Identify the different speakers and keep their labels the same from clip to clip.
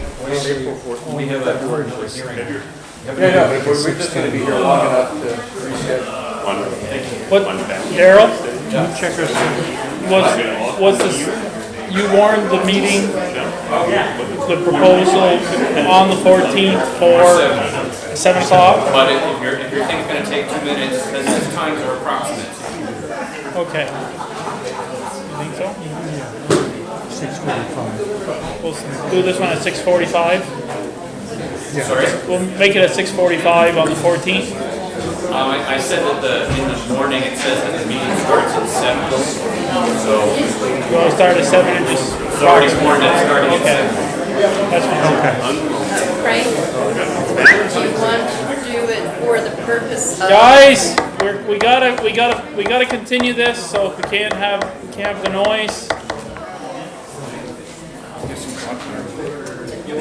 Speaker 1: It's April fourth.
Speaker 2: We have a public hearing.
Speaker 1: No, no, but we're we're just gonna be here long enough to reschedule.
Speaker 3: What, Daryl? Checkers. Was, was this, you warned the meeting, the proposal on the fourteenth for seven o'clock?
Speaker 4: But if if your, if your thing's gonna take two minutes, then those times are approximate.
Speaker 3: Okay. You think so?
Speaker 5: Six forty-five.
Speaker 3: We'll s- do this one at six forty-five?
Speaker 4: Sorry,
Speaker 3: We'll make it at six forty-five on the fourteenth?
Speaker 4: um, I, I said that the, in the morning, it says that the meeting starts at seven. So,
Speaker 3: You wanna start at seven and just?
Speaker 4: it's already warned that it's starting at
Speaker 3: Okay.
Speaker 4: seven.
Speaker 3: That's fine.
Speaker 6: Frank, do you want to do it for the purpose of?
Speaker 3: Guys, we're, we gotta, we gotta, we gotta continue this, so if we can't have, we can't have the noise,
Speaker 6: Do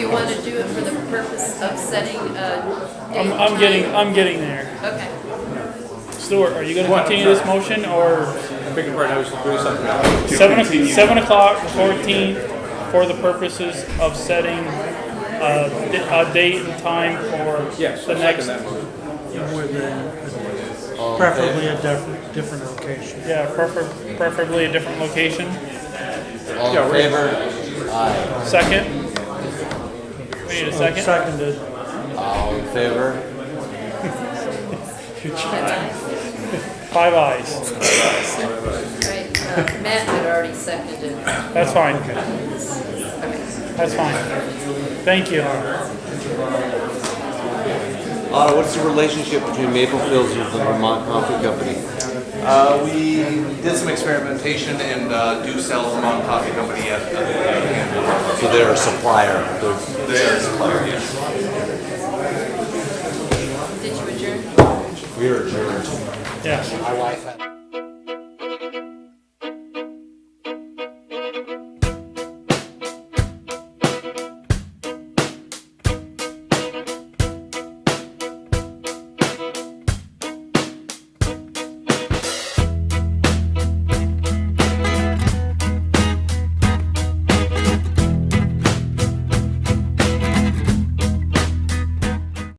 Speaker 6: you want to do it for the purpose of setting a date?
Speaker 3: I'm, I'm getting, I'm getting there.
Speaker 6: Okay.
Speaker 3: Stuart, are you gonna continue this motion, or
Speaker 1: Pick apart, I was doing something else.
Speaker 3: seven, o- seven o'clock, the fourteenth, for the purposes of setting uh, d- a date and time for
Speaker 1: Yes,
Speaker 3: the
Speaker 1: second
Speaker 3: next,
Speaker 1: that motion.
Speaker 5: Preferably a different, different location.
Speaker 3: yeah, prefer- preferably a different location.
Speaker 7: All in favor? Aye.
Speaker 3: Second? We need a second?
Speaker 5: Seconded.
Speaker 7: All in favor?
Speaker 3: Five eyes.
Speaker 6: Right, uh, Matt had already seconded. Okay.
Speaker 3: That's fine. That's fine. Thank you.
Speaker 7: Otto, Uh, what's the relationship between Maple Fields and the Vermont Coffee Company?
Speaker 8: Uh, we did some experimentation and uh, do sell Vermont Coffee Company at uh,
Speaker 7: So they're a supplier. They're-
Speaker 8: their supplier. Yes.
Speaker 6: Did you adjourn?
Speaker 7: We are adjourned.
Speaker 3: Yes.
Speaker 7: My wife had.